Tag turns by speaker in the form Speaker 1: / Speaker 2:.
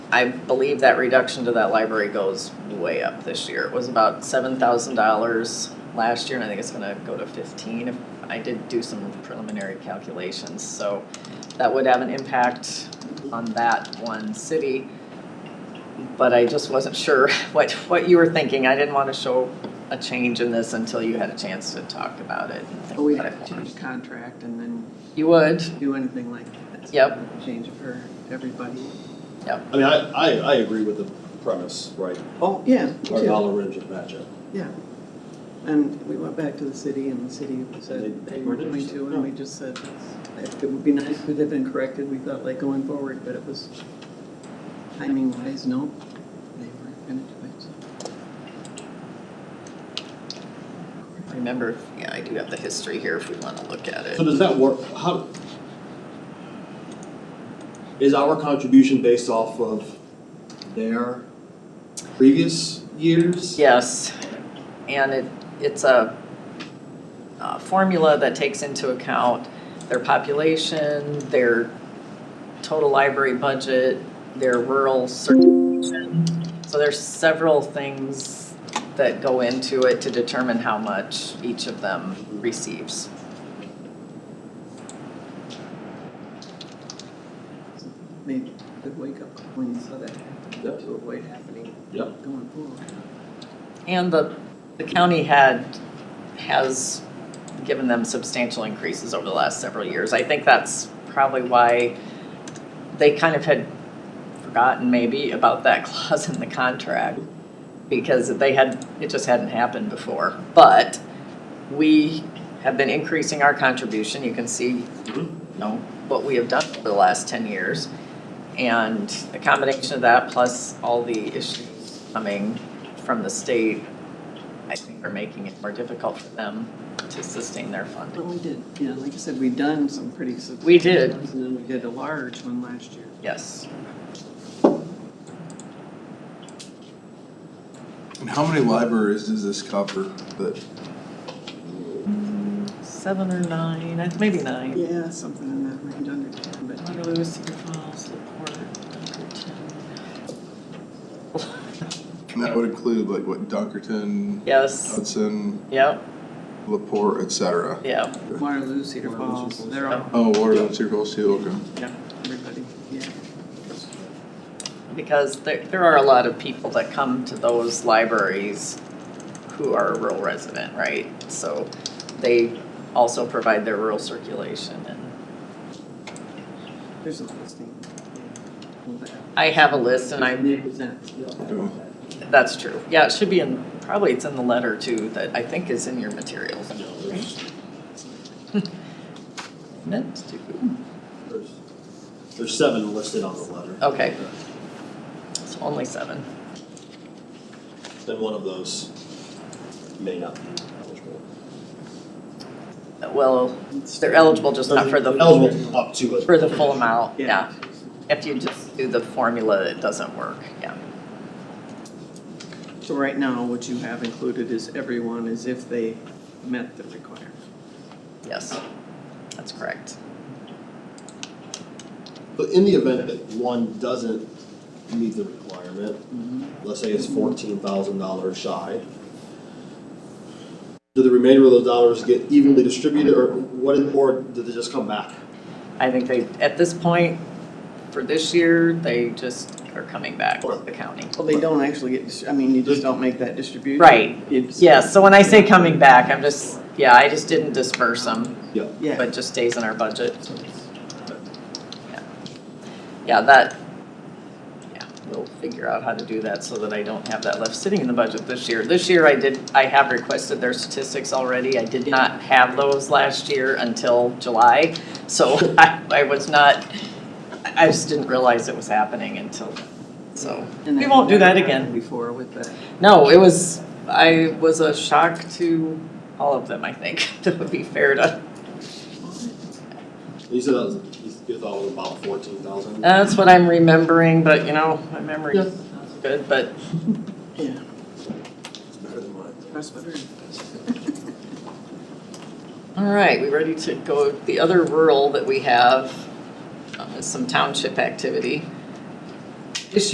Speaker 1: I believe that reduction to that library goes way up this year. It was about seven thousand dollars last year, and I think it's gonna go to fifteen. If I did do some preliminary calculations, so that would have an impact on that one city. But I just wasn't sure what, what you were thinking. I didn't wanna show a change in this until you had a chance to talk about it and
Speaker 2: But Oh, we
Speaker 1: think about
Speaker 2: have
Speaker 1: it.
Speaker 2: to change contract and then
Speaker 1: You would,
Speaker 2: do anything like that.
Speaker 1: Yep.
Speaker 2: Change it for everybody.
Speaker 3: I mean, I, I, I agree with the premise, right?
Speaker 2: Oh, yeah, me
Speaker 3: Our
Speaker 2: too,
Speaker 3: dollar range of matchup.
Speaker 2: yeah. And we went back to the city and the city said they were going to, and we just said, it would be nice if it had been corrected, we thought like going forward, but it was timing wise, no, they weren't gonna do it, so.
Speaker 1: remember, yeah, I do have the history here if we wanna look at it.
Speaker 3: So does that work, how? Is our contribution based off of their previous years?
Speaker 1: Yes, and it, it's a, uh formula that takes into account their population, their total library budget, their rural certification. So there's several things that go into it to determine how much each of them receives.
Speaker 2: Maybe good wake up call when you saw that happen,
Speaker 3: Yep.
Speaker 2: to avoid happening
Speaker 3: Yep.
Speaker 2: going forward.
Speaker 1: And the, the county had, has given them substantial increases over the last several years. I think that's probably why they kind of had forgotten maybe about that clause in the contract. Because they had, it just hadn't happened before. But we have been increasing our contribution. You can see,
Speaker 3: Mhm.
Speaker 1: you know, what we have done over the last ten years. And the combination of that plus all the issues coming from the state, I think are making it more difficult for them to sustain their
Speaker 2: But
Speaker 1: funding.
Speaker 2: we did, yeah, like I said, we done some pretty substantial.
Speaker 1: We did.
Speaker 2: ones, And then we did a large one last year.
Speaker 1: Yes.
Speaker 4: And how many libraries does this cover that,
Speaker 1: Seven or nine, I- maybe nine.
Speaker 2: Yeah, something in that range under ten, but
Speaker 1: Waterloo, Cedar Falls, Laporte, Dunkerton.
Speaker 4: and that would include like what Dunkerton,
Speaker 1: Yes,
Speaker 4: Hudson,
Speaker 1: yep,
Speaker 4: Laporte, et cetera?
Speaker 1: yep.
Speaker 2: Waterloo, Cedar Falls, they're all,
Speaker 4: Oh, Waterloo, Cedar Falls too, okay.
Speaker 2: everybody, yeah.
Speaker 1: Because there, there are a lot of people that come to those libraries who are a rural resident, right? So they also provide their rural circulation and
Speaker 2: There's a listing. All that.
Speaker 1: I have a list and I'm,
Speaker 2: Represents.
Speaker 1: that's true. Yeah, it should be in, probably it's in the letter too, that I think is in your materials.
Speaker 3: No, there's,
Speaker 1: Meant to.
Speaker 3: there's, there's seven listed on the letter.
Speaker 1: Okay. It's only seven.
Speaker 3: Then one of those may not be eligible.
Speaker 1: Well, they're eligible just not for the,
Speaker 3: Eligible up to it.
Speaker 1: for the full amount, yeah.
Speaker 2: Yeah.
Speaker 1: If you just do the formula, it doesn't work, yeah.
Speaker 2: So right now, what you have included is everyone as if they met the requirement.
Speaker 1: Yes, that's correct.
Speaker 3: But in the event that one doesn't meet the requirement,
Speaker 1: Mm-hmm.
Speaker 3: let's say it's fourteen thousand dollars shy. Do the remainder of those dollars get evenly distributed or what, or do they just come back?
Speaker 1: I think they, at this point, for this year, they just are coming back to the county.
Speaker 2: Well, they don't actually get, dis- I mean, you just don't make that distribution.
Speaker 1: Right.
Speaker 2: It's-
Speaker 1: Yeah, so when I say coming back, I'm just, yeah, I just didn't disperse them,
Speaker 3: Yeah.
Speaker 2: Yeah.
Speaker 1: but just stays in our budget. Yeah, that, yeah, we'll figure out how to do that so that I don't have that left sitting in the budget this year. This year I did, I have requested their statistics already. I did not have those last year until July. So I, I was not, I I just didn't realize it was happening until, so.
Speaker 2: And
Speaker 1: We won't do that
Speaker 2: never
Speaker 1: again.
Speaker 2: happened Before with that.
Speaker 1: No, it was, I was a shock to all of them, I think, that would be fair to.
Speaker 3: You said that was, you you thought it was about fourteen thousand?
Speaker 1: That's what I'm remembering, but you know, my memory is not good, but
Speaker 2: Yeah.
Speaker 3: It's better than mine.
Speaker 2: Press better.
Speaker 1: All right, we ready to go, the other rural that we have uh, is some township activity.